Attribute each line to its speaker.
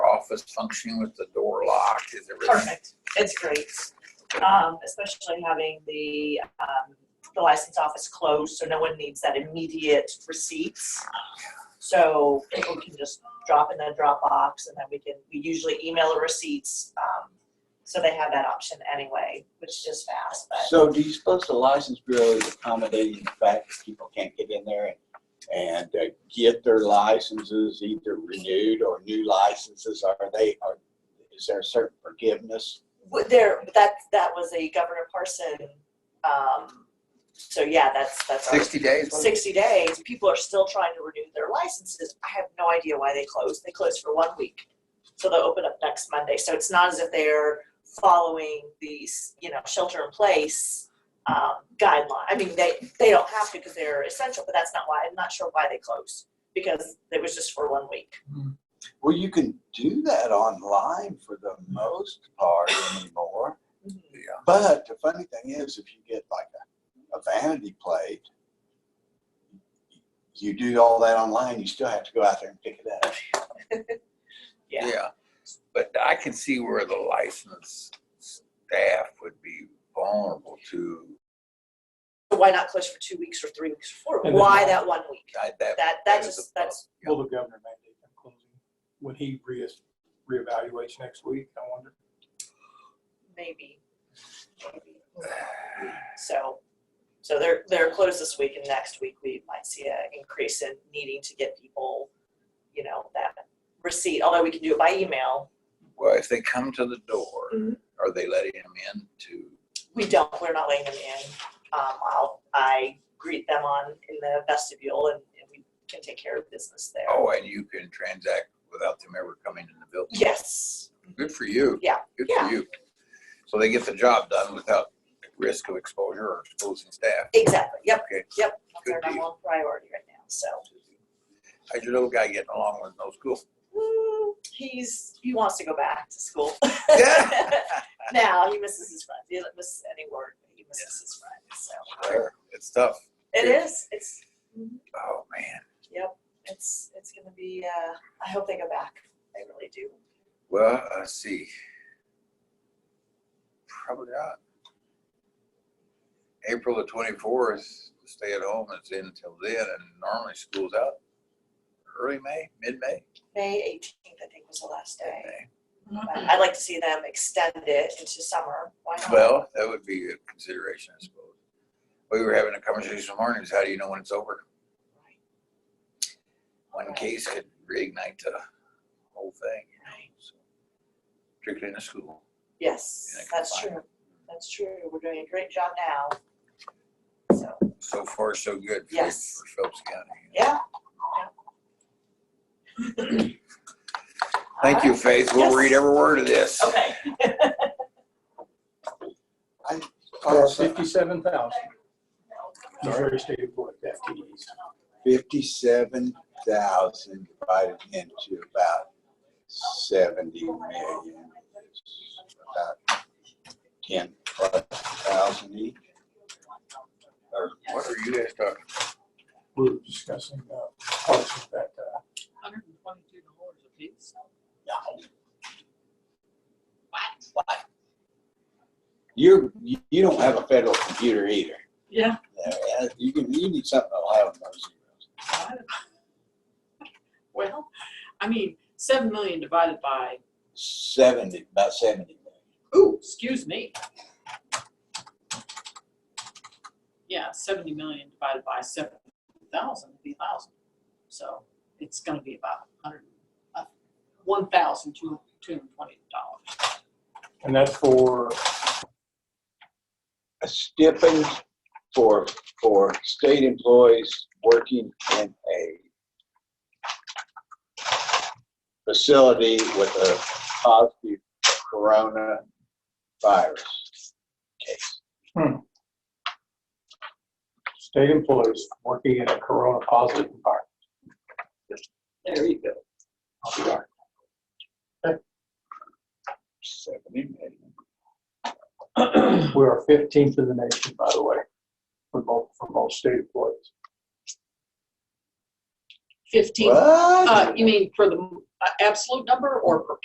Speaker 1: office functioning with the door locked, is everything?
Speaker 2: Perfect. It's great. Um, especially having the, um, the license office closed, so no one needs that immediate receipts. So people can just drop in the Dropbox and then we can, we usually email the receipts. Um, so they have that option anyway, which is just fast, but
Speaker 3: So do you suppose the license bureau is accommodating the fact that people can't get in there and, and uh, get their licenses either renewed or new licenses? Are they, are, is there a certain forgiveness?
Speaker 2: Would there, that, that was a Governor Parson, um, so yeah, that's, that's. our-
Speaker 1: Sixty days? was it?
Speaker 2: 60 days, people are still trying to renew their licenses. I have no idea why they closed. They closed for one week. So they'll open up next Monday. So it's not as if they're following these, you know, shelter in place um, guideline. I mean, they, they don't have to because they're essential, but that's not why. I'm not sure why they closed because it was just for one week.
Speaker 3: Well, you can do that online for the most part anymore.
Speaker 1: Yeah.
Speaker 3: But the funny thing is, if you get like a, a vanity plate, you do all that online, you still have to go out there and pick it up.
Speaker 2: Yeah.
Speaker 1: Yeah, but I can see where the licensed staff would be vulnerable to
Speaker 2: So why not close for two weeks or three weeks or four?
Speaker 4: And then-
Speaker 2: Why that one week?
Speaker 1: that.
Speaker 2: That,
Speaker 1: that
Speaker 2: that
Speaker 1: is
Speaker 2: just,
Speaker 1: a-
Speaker 2: that's,
Speaker 4: Will the governor mandate them closing when he re, reevaluates next week? I wonder.
Speaker 2: maybe. Maybe. So, so they're, they're closed this week and next week we might see an increase in needing to get people, you know, that receipt, although we can do it by email.
Speaker 1: Well, if they come to the door,
Speaker 2: Mhm.
Speaker 1: are they letting them in to?
Speaker 2: We don't, we're not letting them in. Um, I'll, I greet them on in the vestibule and, and we can take care of business there.
Speaker 1: Oh, and you can transact without them ever coming in the building.
Speaker 2: Yes,
Speaker 1: Good for you.
Speaker 2: Mm-hmm. Yeah.
Speaker 1: Good for
Speaker 2: Yeah.
Speaker 1: you. So they get the job done without risk of exposure or exposing staff.
Speaker 2: exactly, yep,
Speaker 1: Okay.
Speaker 2: yep.
Speaker 1: Good
Speaker 2: They're
Speaker 1: deal.
Speaker 2: number one priority right now, so.
Speaker 1: How's your little guy getting along with no school?
Speaker 2: mm, He's, he wants to go back to school.
Speaker 1: Yeah.
Speaker 2: Now, he misses his friends. He doesn't miss any work, but he misses his friends, so.
Speaker 1: Sure. It's tough.
Speaker 2: It
Speaker 1: Yeah.
Speaker 2: is. It's
Speaker 1: Oh, man.
Speaker 2: it's it's gonna be. Uh, I hope they go back. They really do.
Speaker 1: Well, let's see. Probably not. April the twenty-fourth, stay at home, it's in until then, and normally school's out early May, mid-May.
Speaker 2: May 18th, I think, was the last day.
Speaker 1: mid-May.
Speaker 2: But I'd like to see them extend it into summer. Why not?
Speaker 1: Well, that would be a consideration, I suppose. We were having a conversation this morning, is how do you know when it's over?
Speaker 2: Right,
Speaker 1: One case could reignite the whole thing, you know, so. Particularly in the school.
Speaker 2: Yes,
Speaker 1: Yeah, I can
Speaker 2: that's
Speaker 1: find
Speaker 2: true. That's true. We're doing a great job now. So
Speaker 1: So far, so good. for-
Speaker 2: Yes.
Speaker 1: For Phelps County.
Speaker 2: yeah.
Speaker 1: Thank you, Faith. We'll
Speaker 2: Yes.
Speaker 1: read every word of this.
Speaker 2: Okay.
Speaker 3: Uh,
Speaker 4: Or fifty-seven thousand, Missouri State Board of Deputies.
Speaker 3: Fifty-seven thousand divided into about seventy million. is About ten plus thousand each. Or
Speaker 1: What are you guys talking?
Speaker 4: We were discussing, uh, parts of that, uh,
Speaker 5: hundred and twenty-two dollars a piece.
Speaker 3: You're, you you don't have a federal computer either.
Speaker 5: Yeah.
Speaker 3: Yeah, You can, you need something that'll have those zeros.
Speaker 5: Well, I mean, seven million divided by,
Speaker 3: Seventy, about seventy million.
Speaker 5: ooh, excuse me. Yeah, seventy million divided by seven thousand, would be a thousand. So it's gonna be about a hundred, uh, one thousand two, two hundred and twenty dollars.
Speaker 4: and that's for,
Speaker 3: a stipend for, for state employees working in a facility with a positive coronavirus case.
Speaker 4: state employees working in a corona positive environment.
Speaker 5: There you go.
Speaker 4: I'll be darned.
Speaker 3: Seventy million.
Speaker 4: We are fifteenth in the nation, by the way, for both, for most state employees.
Speaker 5: Fifteen,
Speaker 3: What?
Speaker 5: uh, you mean for the uh, absolute number or per